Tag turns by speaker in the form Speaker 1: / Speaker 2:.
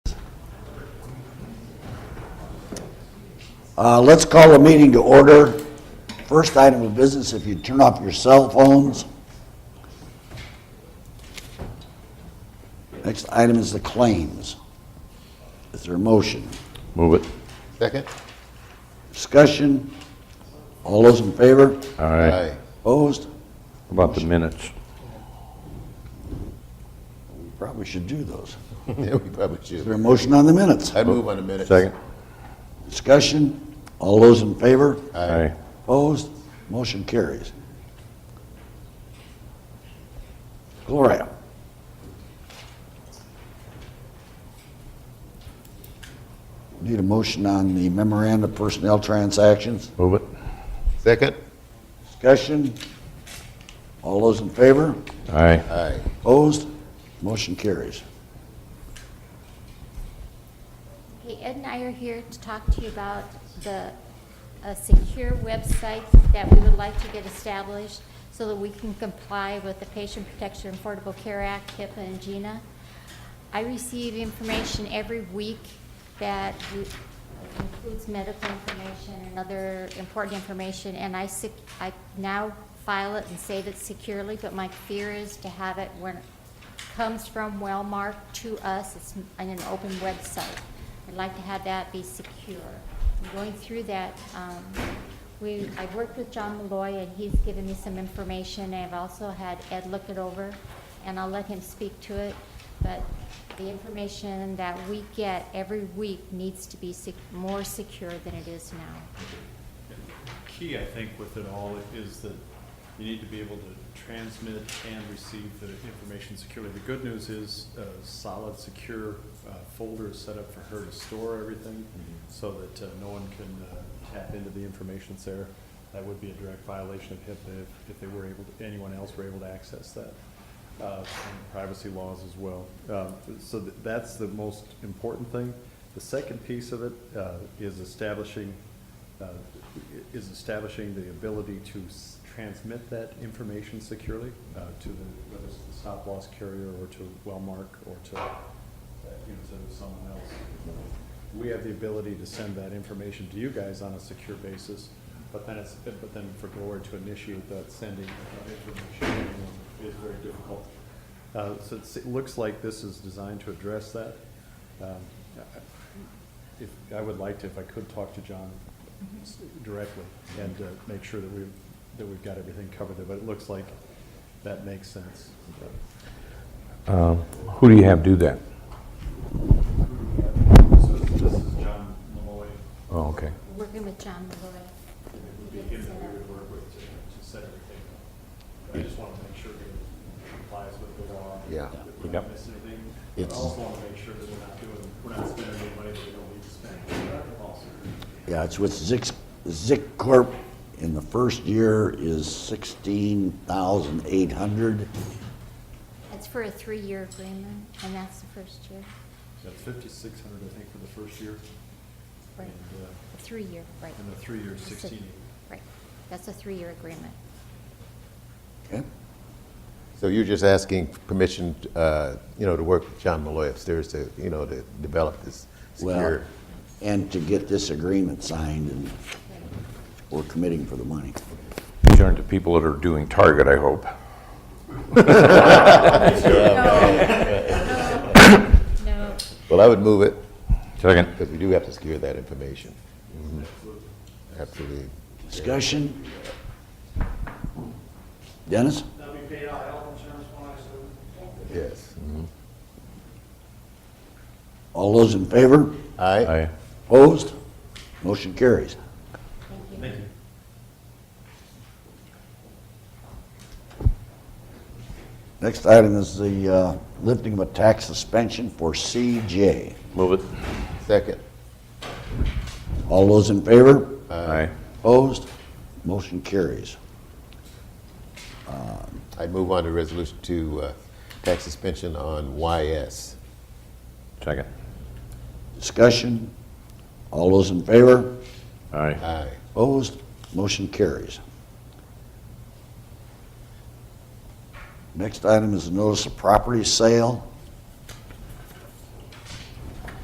Speaker 1: Uh, Let's call a meeting to order. First item of business, if you turn off your cell phones. Next item is the claims. Is there a motion?
Speaker 2: Move it.
Speaker 3: Second?
Speaker 1: Discussion? All those in favor?
Speaker 2: All right.
Speaker 1: Opposed?
Speaker 2: About the minutes.
Speaker 1: We Probably should do those.
Speaker 3: Yeah, we probably
Speaker 1: Is there
Speaker 3: should.
Speaker 1: a motion on the minutes?
Speaker 3: I'd move on a minute.
Speaker 2: Second.
Speaker 1: Discussion? All those in favor?
Speaker 2: Aye.
Speaker 1: Opposed? Motion carries. Gloria? Need a motion on the memorandum of personnel transactions?
Speaker 2: Move it.
Speaker 3: Second?
Speaker 1: Discussion? All those in favor?
Speaker 2: Aye.
Speaker 3: Aye.
Speaker 1: Opposed? Motion carries.
Speaker 4: Hey, Ed and I are here to talk to you about the, a secure website that we would like to get established so that we can comply with the Patient Protection and Affordable Care Act, HIPAA and GINA. I receive information every week that we- includes medical information and other important information, and I sec, I now file it and save it securely, but my fear is to have it when, comes from Wellmark to us, it's on an open website. I'd like to have that be secure. I'm Going through that, um, we, I've worked with John Malloy, and he's given me some information, I've also had Ed look it over, and I'll let him speak to it, but the information that we get every week needs to be sec- more secure than it is now.
Speaker 5: key, I think, with it all is that you need to be able to transmit and receive the information securely. The good news is a solid, secure uh, folder is set up for her to store everything so that uh, no one can uh, tap into the information that's there. That would be a direct violation of HIPAA if- if they were able, to anyone else were able to access that. uh, and Privacy laws as well. Um, So th- that's the most important thing. The second piece of it uh, is establishing uh, is establishing the ability to s- transmit that information securely uh, to the, whether it's the stop-loss carrier or to Wellmark or to, uh, you know, to someone else. We have the ability to send that information to you guys on a secure basis, but then it's, but then for Glory to initiate that sending of information is very difficult. Uh, So it's- it looks like this is designed to address that. Um, I- if, I would like to, if I could, talk to John s- directly and uh, make sure that we've, that we've got everything covered there, but it looks like that makes sense.
Speaker 2: Um, Who do you have do that?
Speaker 5: So this is John Malloy,
Speaker 2: Oh, okay.
Speaker 4: Working with John Malloy.
Speaker 5: it would be him that we would work with to, to set everything up. I just want to make sure that it complies with the law.
Speaker 3: Yeah.
Speaker 5: That we don't
Speaker 2: Yep.
Speaker 5: miss anything. But I
Speaker 3: It's-
Speaker 5: also want to make sure that we're not doing, we're not spending any money that we don't need to spend. Also.
Speaker 1: Yeah, it's with Zix, Zic Corp. In the first year is sixteen thousand eight hundred.
Speaker 4: It's for a three-year agreement, and that's the first year,
Speaker 5: That's fifty-six hundred, I think, for the first year.
Speaker 4: Right.
Speaker 5: And, uh,
Speaker 4: a three-year, right.
Speaker 5: and the three-year,
Speaker 4: That's a-
Speaker 5: sixteen.
Speaker 4: Right, that's a three-year agreement.
Speaker 1: Okay.
Speaker 3: So you're just asking permission, uh, you know, to work with John Malloy upstairs to, you know, to develop this
Speaker 1: Well,
Speaker 3: secure.
Speaker 1: and to get this agreement signed, and we're committing for the money.
Speaker 2: These aren't the people that are doing Target, I hope.
Speaker 4: No.
Speaker 3: Well, I would move it,
Speaker 2: Second.
Speaker 3: because we do have to secure that information. Mm-hmm. Absolutely.
Speaker 1: Discussion? Dennis?
Speaker 6: They'll be paid out health insurance when I sue.
Speaker 3: Yes. Mm-hmm.
Speaker 1: All those in favor?
Speaker 3: Aye.
Speaker 2: Aye.
Speaker 1: Opposed? Motion carries.
Speaker 5: Thank you.
Speaker 1: Next item is the uh, lifting of a tax suspension for CJ.
Speaker 2: Move it.
Speaker 3: Second?
Speaker 1: All those in favor?
Speaker 2: Aye.
Speaker 1: Opposed? Motion carries.
Speaker 3: I'd move on to resolution to uh, tax suspension on YS.
Speaker 2: Second.
Speaker 1: Discussion? All those in favor?
Speaker 2: Aye.
Speaker 3: Aye.
Speaker 1: Opposed? Motion carries. Next item is a notice of property sale.